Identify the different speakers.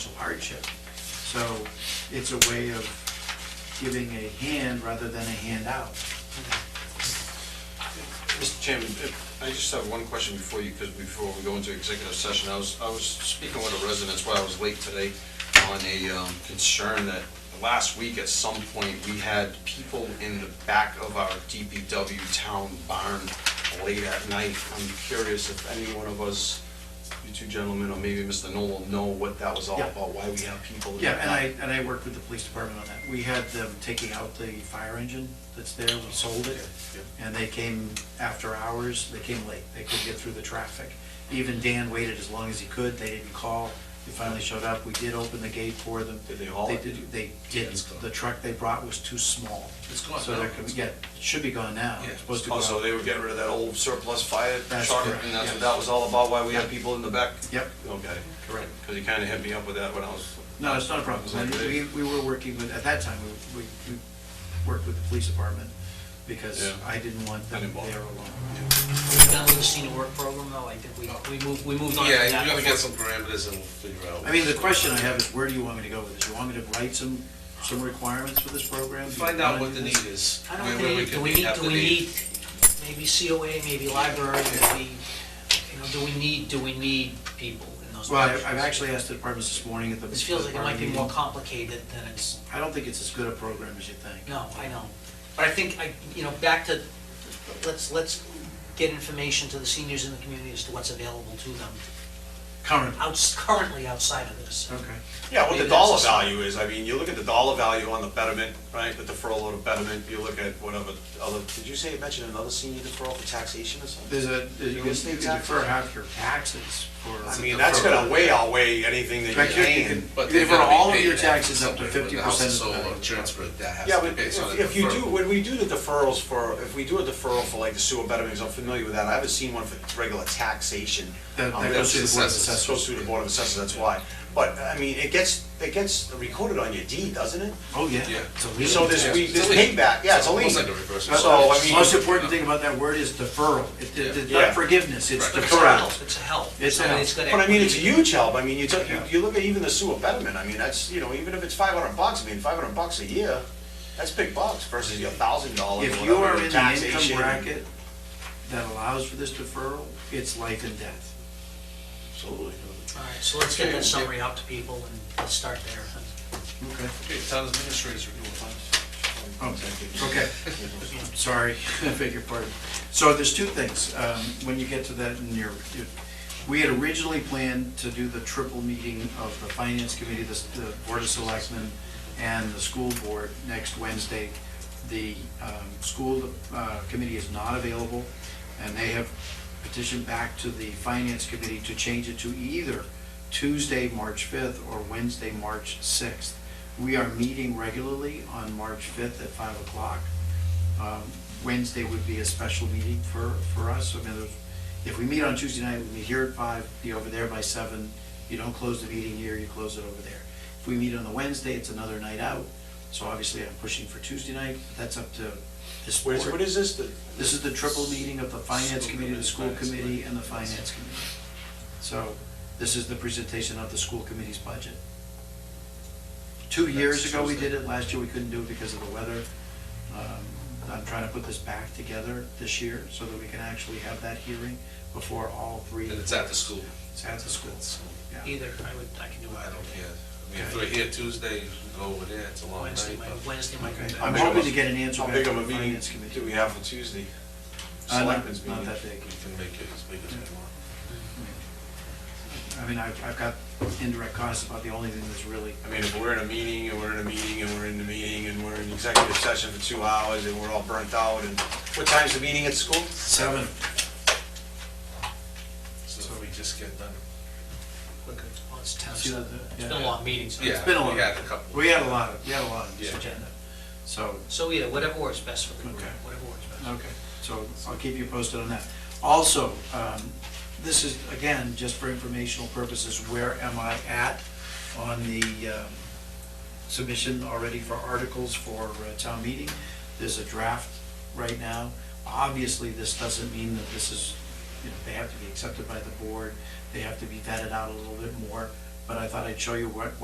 Speaker 1: hardship. So it's a way of giving a hand rather than a handout.
Speaker 2: Mr. Chairman, if- I just have one question before you, because before we go into executive session, I was, I was speaking with a resident, that's why I was late today, on a um, concern that last week at some point, we had people in the back of our DPW town barn late at night. I'm curious if any one of us, you two gentlemen, or maybe Mr. Noel, know what that was all
Speaker 1: Yeah.
Speaker 2: about, why we have people. in the
Speaker 1: Yeah, and I,
Speaker 2: back.
Speaker 1: and I worked with the police department on that. We had them taking out the fire engine that's there, we sold it, and they came after hours, they came late, they couldn't get through the traffic. Even Dan waited as long as he could, they didn't call, they finally showed up, we did open the gate for them.
Speaker 2: Did they haul it?
Speaker 1: did- They did,
Speaker 3: it's gone.
Speaker 1: the truck they brought was too small.
Speaker 3: It's gone
Speaker 1: So
Speaker 3: now.
Speaker 1: they're, yeah, it should be gone now, it's supposed to go
Speaker 2: Oh, so
Speaker 1: out.
Speaker 2: they were getting rid of that old surplus fire
Speaker 1: That's
Speaker 2: truck,
Speaker 1: correct,
Speaker 2: and that's what
Speaker 1: yeah.
Speaker 2: that was all about, why we had people in the back?
Speaker 1: Yep.
Speaker 2: Okay.
Speaker 1: Correct.
Speaker 2: Because you kind of hit me up with that when I was,
Speaker 1: No, it's not a problem.
Speaker 2: Is that good?
Speaker 1: We, we were working with, at that time, we, we we worked with the police department because
Speaker 2: Yeah.
Speaker 1: I didn't want
Speaker 2: I
Speaker 1: them
Speaker 2: didn't bother.
Speaker 1: there alone.
Speaker 4: Now with the senior work program though, I think we, we moved, we moved on to that.
Speaker 3: Yeah, you gotta get some parameters and we'll figure out.
Speaker 1: I mean, the question I have is where do you want me to go with this? You want me to write some, some requirements for this program? Do you
Speaker 3: Find out
Speaker 1: wanna
Speaker 3: what
Speaker 1: do
Speaker 3: the
Speaker 1: this?
Speaker 3: need is.
Speaker 4: I
Speaker 3: where-
Speaker 4: don't
Speaker 3: where
Speaker 4: think, do
Speaker 3: can
Speaker 4: we
Speaker 3: meet,
Speaker 4: need,
Speaker 3: have
Speaker 4: do
Speaker 3: the
Speaker 4: we
Speaker 3: need.
Speaker 4: need, maybe COA, maybe library, maybe, you know, do we need, do we need people in those
Speaker 1: Well, I-
Speaker 4: positions?
Speaker 1: I've actually asked the departments this morning at the.
Speaker 4: This feels like it might be more
Speaker 1: department
Speaker 4: complicated than it's,
Speaker 1: meeting. I don't think it's as good a program as you think.
Speaker 4: no, I know. But I think, I, you know, back to, let's, let's get information to the seniors in the community as to what's available to them,
Speaker 1: Current,
Speaker 4: outs, currently outside of this.
Speaker 1: okay.
Speaker 2: yeah, what
Speaker 4: Maybe
Speaker 2: the
Speaker 4: that's
Speaker 2: dollar
Speaker 4: a-
Speaker 2: value is, I mean, you look at the dollar value on the betterment, right, the deferral of the betterment, you look at whatever other, did you say, mention another senior deferral for taxation or something?
Speaker 1: There's a, you
Speaker 2: You
Speaker 1: can you
Speaker 2: estate
Speaker 1: can
Speaker 2: tax?
Speaker 1: defer half your taxes for.
Speaker 2: I mean, that's gonna way outweigh anything that
Speaker 1: In fact,
Speaker 2: you're
Speaker 1: you can-
Speaker 2: paying.
Speaker 3: But
Speaker 1: They
Speaker 3: they're
Speaker 1: were
Speaker 3: gonna be
Speaker 1: all of
Speaker 3: paid
Speaker 1: your
Speaker 3: that
Speaker 1: taxes up to
Speaker 3: somewhere, when the house
Speaker 1: 50%
Speaker 3: is
Speaker 1: of the
Speaker 3: sold or
Speaker 1: value.
Speaker 3: transferred, that has
Speaker 2: Yeah,
Speaker 3: to be
Speaker 2: but
Speaker 3: based on
Speaker 2: if
Speaker 3: a
Speaker 2: if you do,
Speaker 3: deferral.
Speaker 2: when we do the deferrals for, if we do a deferral for like the sewer betterments, I'm familiar with that, I haven't seen one for regular taxation.
Speaker 1: That-
Speaker 2: Um,
Speaker 1: that goes through the Board of
Speaker 2: assessors.
Speaker 1: Assessors.
Speaker 2: Goes through the Board of Assessors, that's why. But, I mean, it gets, it gets recorded on your deed, doesn't it?
Speaker 1: Oh, yeah.
Speaker 3: Yeah.
Speaker 1: It's a
Speaker 2: So
Speaker 1: lien.
Speaker 2: there's,
Speaker 3: Yeah,
Speaker 2: we,
Speaker 3: it's
Speaker 2: there's
Speaker 3: a lien.
Speaker 2: payback, yeah, it's a lien.
Speaker 3: Almost like a reverse
Speaker 2: So, I
Speaker 1: The
Speaker 2: mean.
Speaker 1: Most important thing about that word is deferral. It- it- It's
Speaker 2: Yeah.
Speaker 1: not forgiveness, it's
Speaker 3: Right.
Speaker 4: It's a
Speaker 1: deferral.
Speaker 4: help, it's a help.
Speaker 1: It's a
Speaker 4: I mean,
Speaker 1: help.
Speaker 4: gonna-
Speaker 2: But I mean, it's a huge help, I mean, you took, you, you look at even the sewer betterment, I mean, that's, you know, even if it's five hundred bucks, I mean, five hundred bucks a year, that's big bucks versus your thousand dollars,
Speaker 1: If you are
Speaker 2: whatever,
Speaker 1: in the income
Speaker 2: taxation.
Speaker 1: bracket that allows for this deferral, it's life and death.
Speaker 2: Absolutely.
Speaker 4: All right, so let's get that summary out to people and let's start there.
Speaker 1: Okay.
Speaker 3: Okay, town administrators are doing fine.
Speaker 1: Oh, thank you. Okay. Sorry, I beg your pardon. So there's two things, um, when you get to that in your, you- we had originally planned to do the triple meeting of the Finance Committee, the, the Board of Selectmen, and the School Board next Wednesday. The, um, School, uh, Committee is not available, and they have petitioned back to the Finance Committee to change it to either Tuesday, March fifth, or Wednesday, March sixth. We are meeting regularly on March fifth at five o'clock. Um, Wednesday would be a special meeting for, for us. I mean, there's- if we meet on Tuesday night, we meet here at five, be over there by seven. You don't close the meeting here, you close it over there. If we meet on the Wednesday, it's another night out. So obviously, I'm pushing for Tuesday night, but that's up to this board.
Speaker 2: Where's, what is this, the?
Speaker 1: This is the triple meeting of the Finance
Speaker 3: School
Speaker 1: Committee, the
Speaker 3: Committee,
Speaker 1: School
Speaker 3: Finance
Speaker 1: Committee,
Speaker 3: Committee.
Speaker 1: and the Finance Committee. So this is the presentation of the school committee's budget. Two years ago, we did it. Last year, we couldn't do it because of the weather. Um, I'm trying to put this back together this year so that we can actually have that hearing before all three.
Speaker 3: And it's at the school.
Speaker 1: It's at the schools. Yeah.
Speaker 4: Either, I would, I can do
Speaker 3: I
Speaker 4: either.
Speaker 3: don't care. I mean, if we're here Tuesday, we go over there, it's a long
Speaker 4: Wednesday
Speaker 3: night.
Speaker 4: might,
Speaker 3: but-
Speaker 4: Wednesday might
Speaker 1: Okay.
Speaker 4: be
Speaker 1: I'm
Speaker 4: better.
Speaker 2: big of
Speaker 1: hoping
Speaker 2: a-
Speaker 1: to get an answer
Speaker 2: How
Speaker 1: back
Speaker 2: big
Speaker 1: from
Speaker 2: of a
Speaker 1: the
Speaker 2: meeting
Speaker 1: Finance
Speaker 2: do
Speaker 1: Committee.
Speaker 2: we have for Tuesday?
Speaker 1: Uh, not-
Speaker 2: Selectmen's
Speaker 1: Not
Speaker 2: meeting.
Speaker 1: that big.
Speaker 3: We can make it as big as we want.
Speaker 1: I mean, I've, I've got indirect costs about the only thing that's really
Speaker 2: I mean, if we're in a meeting, and we're in a meeting, and we're in the meeting, and we're in executive session for two hours, and we're all burnt out, and what time's the meeting at school?
Speaker 1: seven.
Speaker 3: So if we just get done.
Speaker 4: Quicker. Well, it's ten,
Speaker 1: See that,
Speaker 4: so-
Speaker 1: uh,
Speaker 4: it's
Speaker 1: yeah.
Speaker 4: been a long meeting, so.
Speaker 3: Yeah,
Speaker 1: been a
Speaker 3: we
Speaker 1: long-
Speaker 3: had a couple.
Speaker 1: We had a lot of, we had a lot on this
Speaker 3: Yeah.
Speaker 1: agenda. So,
Speaker 4: So, yeah, whatever works best for the group,
Speaker 1: Okay.
Speaker 4: whatever works best.
Speaker 1: okay, so I'll keep you posted on that. Also, um, this is, again, just for informational purposes, where am I at on the um, submission already for articles for uh, town meeting? There's a draft right now. Obviously, this doesn't mean that this is, you know, they have to be accepted by the board, they have to be vetted out a little bit more, but but I thought I'd show you what,